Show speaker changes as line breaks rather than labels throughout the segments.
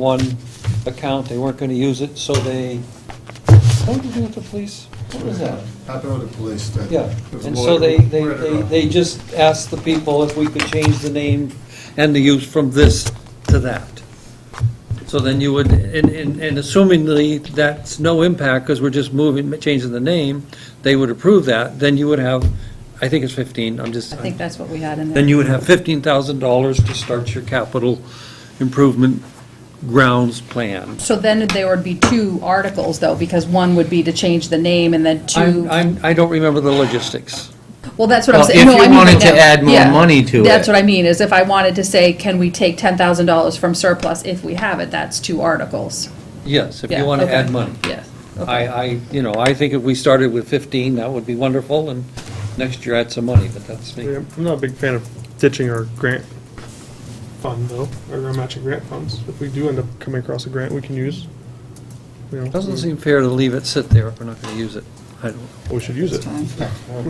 one account, they weren't gonna use it, so they, what did they do with the police? What was that?
Happened with the police. that-
Yeah,
it was
and
a
so
lawyer.
they, they,
Where did
they
it
they just asked the people if we could change the name and the use from this to that. So then you would, and, and and assumingly, that's no impact, because we're just moving, changing the name, they would approve that, then you would have, I think it's fifteen, I'm just.
I think that's what we had in there.
then you would have fifteen thousand dollars to start your capital improvement grounds plan.
So then there would be two articles, though, because one would be to change the name, and then
I'm,
two,
I'm, I don't remember the logistics.
well, that's what I'm
Well,
saying.
if
No,
you
I mean,
wanted to
no,
add more
yeah.
money to
That's
it.
what I mean, is if I wanted to say, can we take $10,000 from surplus if we have it, that's two articles.
Yes, if you
Yeah,
want to
okay.
add money.
Yes. okay.
I, I, you know, I think if we started with fifteen, that would be wonderful, and next year add some money, but that's me.
Yeah, I'm not a big fan of ditching our grant fund though, or our matching grant funds. If we do end up coming across a grant we can use, you know,
Doesn't seem fair to leave it sit there if we're not going to use it. I don't,
we should use
It's
it.
fine.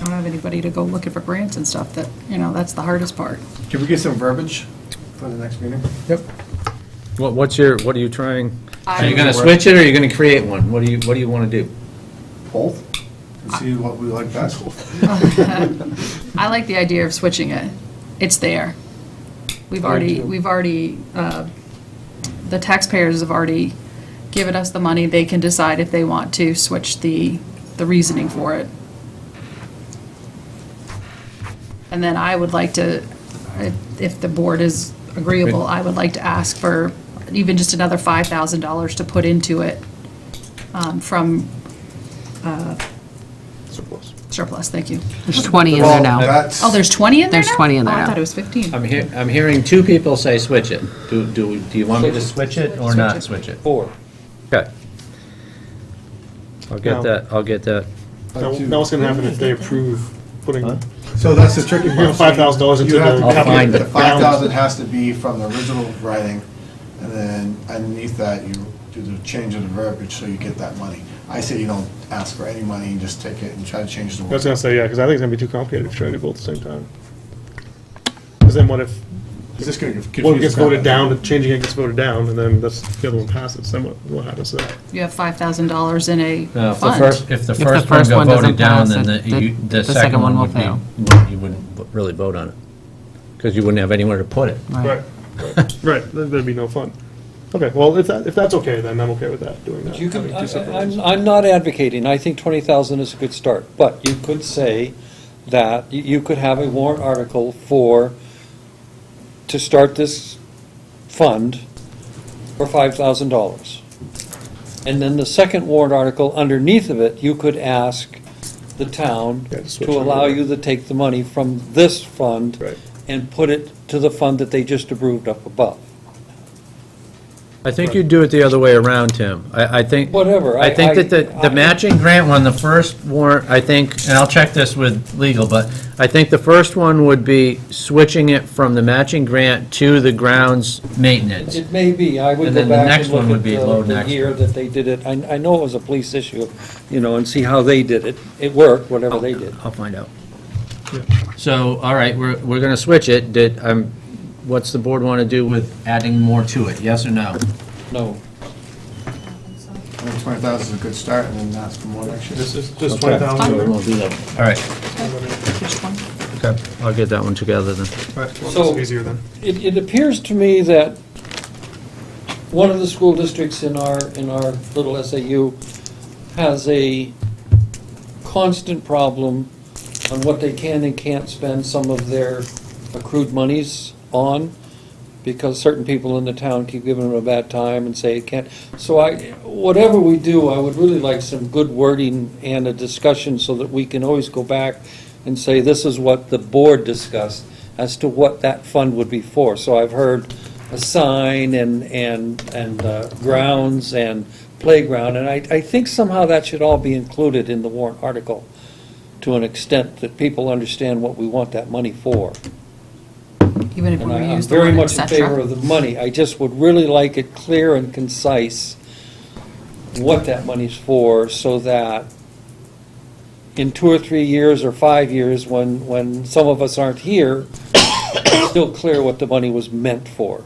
I don't have anybody to go looking for grants and stuff, that, you know, that's the hardest part.
Can we get some verbiage for the next meeting?
What, what's your, what are you trying?
Are you gonna switch it, or are you gonna create one? What do you, what do you wanna do?
Both? And see what we like best.
I like the idea of switching it. It's there. We've already, we've already, uh, the taxpayers have already given us the money. They can decide if they want to switch the, the reasoning for it. And then I would like to, if- if the board is agreeable, I would like to ask for even just another $5,000 to put into it um, from
Surplus.
surplus, thank you.
There's 20 in
Well,
there now.
that's-
Oh, there's 20 in there
There's
now?
20 in there
Oh, I
now.
thought it was 15.
I'm hear, I'm hearing two people say switch it. Do, do, do you want me to switch it Oh, or not switch it?
four.
Okay. I'll
No.
get that, I'll get that.
Now, now what's gonna happen if they approve putting,
So that's the tricky
You know,
part.
$5,000 into
You have to
the-
I'll
be-
find
The
it.
five thousand has to be from the original writing, and then underneath that, you do the change of the verbiage, so you get that money. I say you don't ask for any money, you just take it and try to change the
I was
word.
gonna say, yeah, because I think it's gonna be too complicated if you try to do both at the same time. Because then what if
Is this gonna confuse?
one gets
the crap
voted
out of
down, changing it gets voted down, and then that's, the other one passes, then what, what happens to that?
You have five thousand dollars in a
Uh,
No, Uh, if the
fund.
first, if the
If the
first one
first
got
one doesn't
voted down,
pass,
then
it-
the, you,
it-
the second one
will
would be,
fail.
would- you wouldn't v- really vote on it. Because you wouldn't have anywhere to put it.
Right, right, then there'd be no fun. Okay, well, if that, if that's okay, then I'm okay with that, doing that.
You could,
having two
I-
separate
I-
ones.
I'm, I'm not advocating, I think twenty thousand is a good start, but you could say that you- you could have a warrant article for, to start this fund for five thousand dollars. And then the second warrant article, underneath of it, you could ask the town
Yeah, to switch
to
it
allow
over.
you to take the money from this fund
Right.
and put it to the fund that they just approved up above.
I think you do it the other way around, Tim. I, I think.
Whatever, I-
I think that the,
I- I-
the matching grant one, the first warrant, I think, and I'll check this with legal, but I think the first one would be switching it from the matching grant to the grounds maintenance.
It may be, I would
And
go
then the
back
next
and look
one would
at
be
the-
low
the
next.
year that they did it. I, I know it was a police issue, you know, and see how they did it. It worked, whatever they did.
I'll find out. So, all right, we're, we're gonna switch it. Did, um, what's the board wanna do with adding more to it? Yes or no?
No.
Twenty thousand is a good start, and then ask for more next year.
This is just twenty thousand.
All right, okay, I'll get that one together then.
So-
So easier then.
It, it appears to me that one of the school districts in our, in our little SAU has a constant problem on what they can and can't spend some of their accrued monies on, because certain people in the town keep giving them a bad time and say it can't. So I, whatever we do, I would really like some good wording and a discussion so that we can always go back and say, this is what the board discussed as to what that fund would be for. So I've heard a sign and, and, and uh, grounds and playground, and I, I think somehow that should all be included in the warrant article to an extent that people understand what we want that money for.
Even if we
And I- I'm
reuse the
very
word et
much in favor
cetera.
of the money. I just would really like it clear and concise what that money's for, so that in two or three years or five years, when, when some of us aren't here, it's still clear what the money was meant for.